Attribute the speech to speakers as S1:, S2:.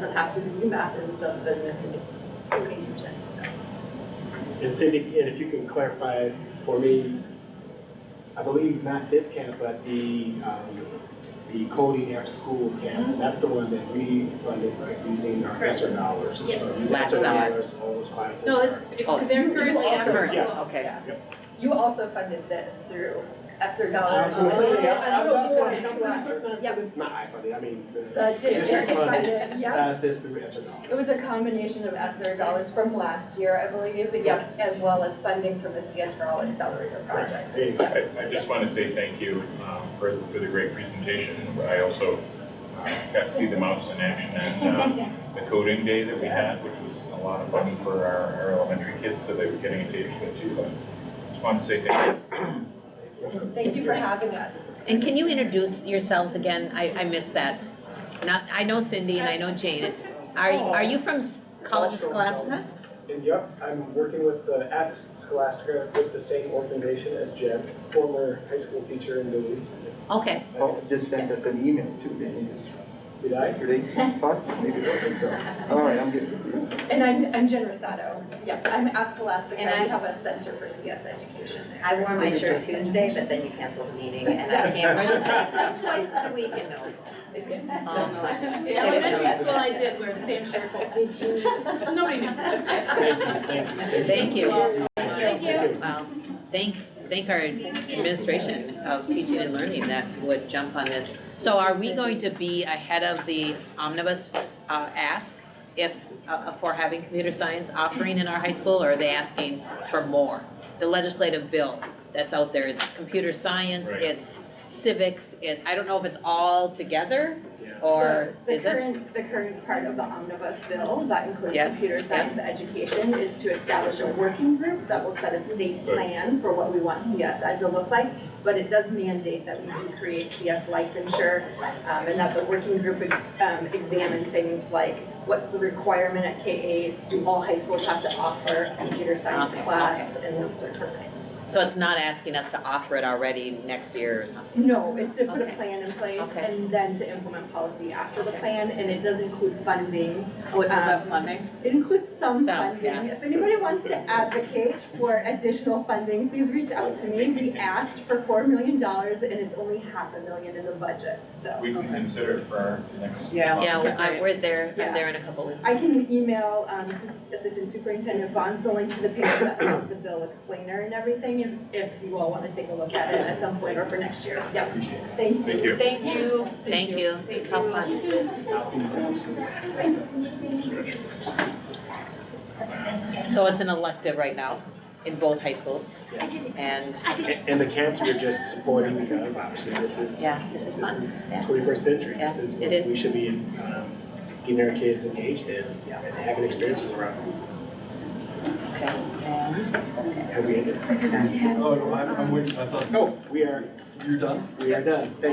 S1: doesn't have to be UMass, it does business in Okie Tewksbury, so.
S2: And Cindy, and if you can clarify for me, I believe not this camp, but the, um, the coding after school camp, that's the one that we funded, right, using our
S1: Mm-hmm. Correct.
S2: ESSER dollars. And So
S1: Yes.
S2: using
S3: Last
S2: ESSER
S3: summer.
S2: dollars, all those classes.
S1: No, it's,
S2: are-
S3: Oh,
S1: it- they're currently
S3: also-
S1: after
S2: Yeah.
S1: school.
S3: Okay.
S1: You also funded this through ESSER
S2: I
S1: dollars.
S2: was gonna say,
S1: as
S2: I
S1: an
S2: was, I was
S1: award
S2: gonna say, I'm
S1: to
S2: pretty
S1: us.
S2: certain I
S1: Yep.
S2: funded, not I funded, I mean, the
S1: The district funded, yeah.
S2: uh, this through ESSER dollars.
S1: It was a combination of ESSER dollars from last year, I believe, but yep, as well as funding from the CS for All Accelerator
S2: Right,
S1: project.
S2: there you go.
S4: I, I just want to say thank you um, for, for the great presentation. I also uh, got to see the mouse in action at um, the coding day that we had, which was a lot of fun for our, our elementary kids, so they were getting a taste of it too. But Just want to say thank you.
S1: Thank you for having us.
S3: And can you introduce yourselves again? I, I missed that. Not, I know Cindy and I know Jane. It's, are, are you from S- College of Scholastica?
S2: And yep, I'm working with, uh, at Scholastica with the same organization as Jeb, former high school teacher in Duluth.
S3: Okay,
S5: Paul Oh, just sent us an email too, didn't he, just
S2: Did I?
S5: yesterday? Thought so, maybe,
S2: I don't think so.
S5: all right, I'm getting confused.
S1: And I'm, I'm Jen Rosato. Yep, I'm at Scholastica.
S6: And I-
S1: We have a center for CS education there.
S6: I wore my shirt Tuesday, but then you canceled the meeting and I can't wear the same thing twice a week in Millville. Um, but-
S7: Yeah, elementary school I did wear the same shirt both. Did you? Nobody knew.
S2: Thank you, thank you, thank you.
S3: thank you.
S7: Thank you.
S3: Well, Um, thank, thank our administration of teaching and learning that would jump on this. So are we going to be ahead of the omnibus, uh, ask if, uh, for having computer science offering in our high school? Or are they asking for more? The legislative bill that's out there, it's computer science,
S4: Right.
S3: it's civics, it, I don't know if it's all together
S2: Yeah.
S3: or
S1: The-
S3: is
S1: The
S3: it?
S1: current, the current part of the omnibus bill that includes
S3: Yes,
S1: computer science education is to establish a working group that will set a state
S4: Good.
S1: plan for what we want CS ed to look like. But it does mandate that we can create CS licensure, um, and that the working group, um, examine things like what's the requirement at K eight? Do all high schools have to offer a computer science
S3: Okay,
S1: class and those sorts of things?
S3: So it's not asking us to offer it already next year or something?
S1: No, it's to put a
S3: Okay.
S1: plan in place
S3: Okay.
S1: and then to implement policy after the
S3: Okay.
S1: plan, and it does include funding.
S7: What
S1: does that
S7: funding?
S1: It includes some
S3: Some, yeah.
S1: funding. If anybody wants to advocate for additional funding, please reach out to me. We asked for four million dollars and it's only half a million in the budget, so.
S4: We can consider it for our next.
S7: Yeah.
S3: Yeah,
S7: Okay.
S3: I- we're there,
S1: Yeah.
S3: I'm there in a couple weeks.
S1: I can email um, Su- Assistant Superintendent Bonds the link to the page that has the bill explainer and everything, if, if you all want to take a look at it at some point or for next year. Yep,
S2: Appreciate it.
S1: thank you.
S4: Thank you.
S7: Thank you.
S3: Thank you,
S7: Thank
S3: how
S7: you.
S3: fun.
S2: I'll see you guys.
S3: So it's an elective right now in both high schools and
S2: And and the camps we're just supporting because obviously this is,
S3: yeah, this is
S2: this
S3: fun.
S2: is
S3: Yeah.
S2: twenty-first century.
S3: Yeah,
S2: This is
S3: it is.
S2: what we should be, um, getting our kids engaged in and having experiences around.
S3: Okay, and
S2: Have we ended?
S5: Oh, no, I'm, I'm waiting, I thought
S2: No, we are,
S5: you're done?
S2: we are done. Thank you.